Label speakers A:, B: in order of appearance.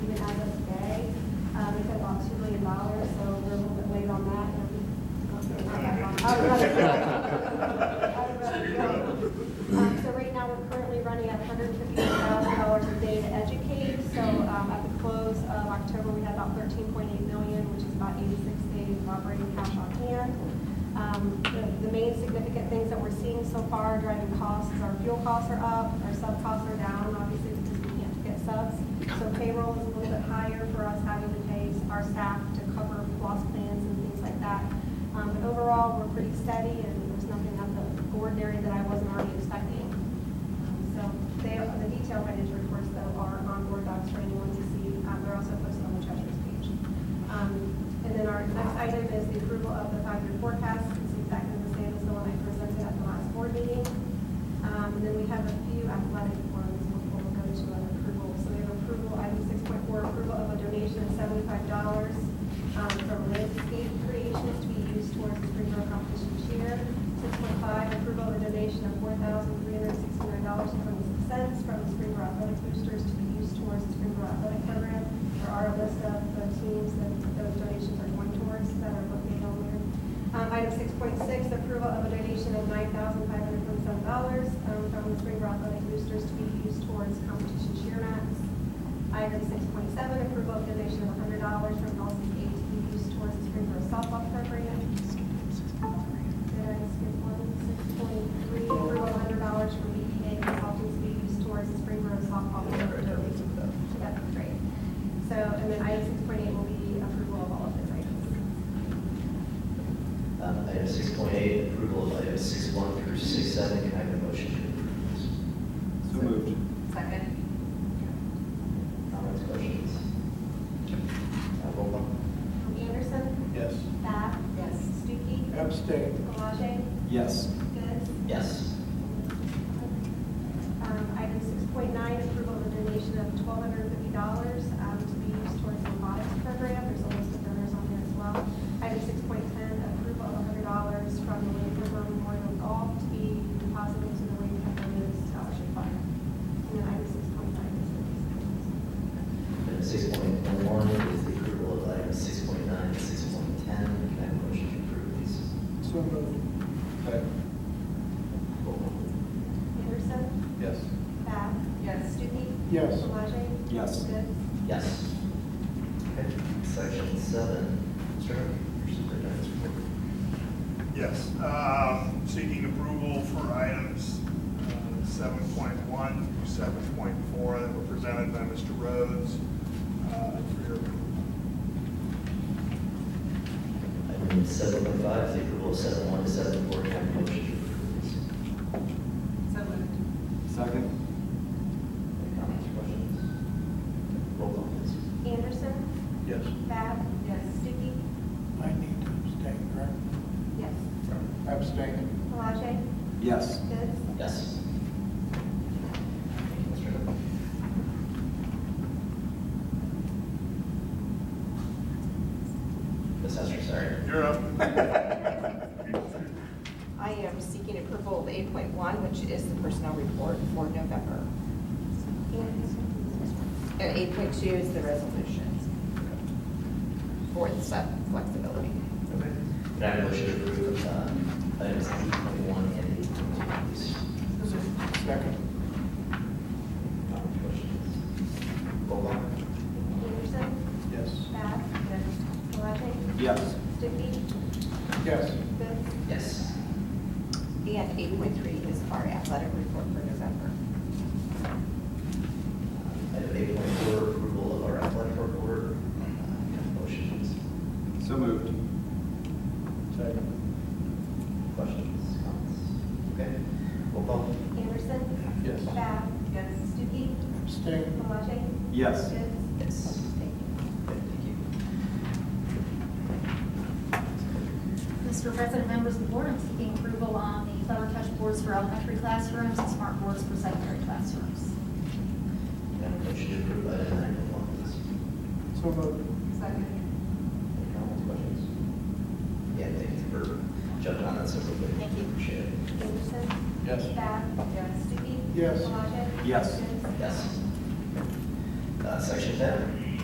A: Uh, All right. All right,
B: You're good.
A: um, um, So right now, we're currently running at $150,000 a day to educate. So um, at the close of October, we had about 13.8 million, which is about 86 days of operating cash on hand. Um, the- The main significant things that we're seeing so far driving costs, is our fuel costs are up, our sub costs are down, obviously, because we can't get subs. So payroll is a little bit higher for us having to pay our staff to cover loss plans and things like that. Um, But overall, we're pretty steady, and there's nothing out of the ordinary that I wasn't already expecting. Um, So they, the detailed financial reports, though, are on board docs for anyone to see. Um, They're also posted on the treasurer's page. Um, And then our next item is the approval of the five-year forecast. It's exactly the same as the one I presented at the last board meeting. Um, And then we have a few athletic ones before we go to an approval. So we have approval, item six point four, approval of a donation of seventy-five dollars um, from Landscape Creations to be used towards the Springboro Competition Cheer. Six point five, approval of a donation of four thousand three hundred sixty-nine dollars and twenty-six cents from the Springboro Athletic Boosters to be used towards the Springboro Athletic Program. There are a list of the teams that those donations are going towards that are located on there. Um, Item six point six, approval of a donation of nine thousand five hundred twenty-seven dollars um, from the Springboro Athletic Boosters to be used towards competition cheer mats. Item six point seven, approval of donation of hundred dollars from LCA to be used towards the Springboro softball program. Did I skip one? Six point three, approval of hundred dollars from BEA consulting to be used towards the Springboro softball program. So that's great. So, and then item six point eight will be approval of all of those items.
C: Um, Item six point eight, approval of items six one through six seven, can I have a motion to approve this?
D: So moved.
E: Second.
C: Comments, questions? Uh, Roll call.
A: Anderson?
D: Yes.
A: Bath?
E: Yes.
A: Stuckey?
D: Abstain.
A: Palage?
D: Yes.
A: Goods?
C: Yes.
A: Um, Item six point nine, approval of a donation of twelve hundred and fifty dollars um, to be used towards the robotics program. There's a list of donors on there as well. Item six point ten, approval of hundred dollars from the Wade River Memorial Golf to be deposited into the Wade River Youth Scholarship Fund. And then item six point nine is the
C: Item six point one is the approval of items six point nine and six point ten, can I have a motion to approve these?
D: So moved. Second.
C: Roll call.
A: Anderson?
D: Yes.
A: Bath?
E: Yes.
A: Stuckey?
D: Yes.
A: Palage?
D: Yes.
A: Goods?
C: Yes. Okay, section seven, Mr. Harvey, your superintendent's report.
B: Yes, um, seeking approval for items uh, seven point one through seven point four that were presented by Mr. Rhodes. uh, for your approval.
C: Item seven point five is the approval of seven one to seven four, can I have a motion to approve these?
E: So moved.
D: Second.
C: Any comments, questions? Roll call, please.
A: Anderson?
D: Yes.
A: Bath?
E: Yes.
A: Stuckey?
D: I need to abstain, correct?
A: Yes.
D: Abstain.
A: Palage?
D: Yes.
A: Goods?
C: Yes. Mr. Hurd. Ms. Hester, sorry.
B: You're up.
E: I am seeking approval of eight point one, which is the personnel report for November. And eight point two is the resolutions for the sub flexibility.
C: Okay. Can I have a motion to approve um, items eight point one and eight point two, please?
D: Second.
C: Comments, questions? Roll call.
A: Anderson,
D: Yes.
A: Bath, Palage,
D: Yes.
A: Stuckey,
D: Yes.
A: Goods.
C: Yes.
E: And eight point three is our athletic report for November.
C: Item eight point four, approval of our athletic report. Uh, Can I have a motion, please?
D: So moved. Second.
C: Questions, comments? Okay, roll call.
A: Anderson,
D: Yes.
A: Bath,
E: Yes.
A: Stuckey,
D: Abstain.
A: Palage,
D: Yes.
A: Goods.
C: Yes.
E: Thank you.
C: Okay, Thank you.
F: Mr. President, members of the board, I'm seeking approval on the Clever Touch boards for elementary classrooms and smart boards for secondary classrooms.
C: Can I have a motion to approve item nine point one, please?
D: So moved.
E: Second.
C: Any comments, questions? Yeah, thank you for jumping on that so quickly.
F: Thank you.
C: Appreciate it.
A: Anderson,
D: Yes.
A: Bath,
E: Yes.
A: Stuckey,
D: Yes.
A: Palage,
D: Yes.
A: Goods.
C: Yes. Uh, Section ten,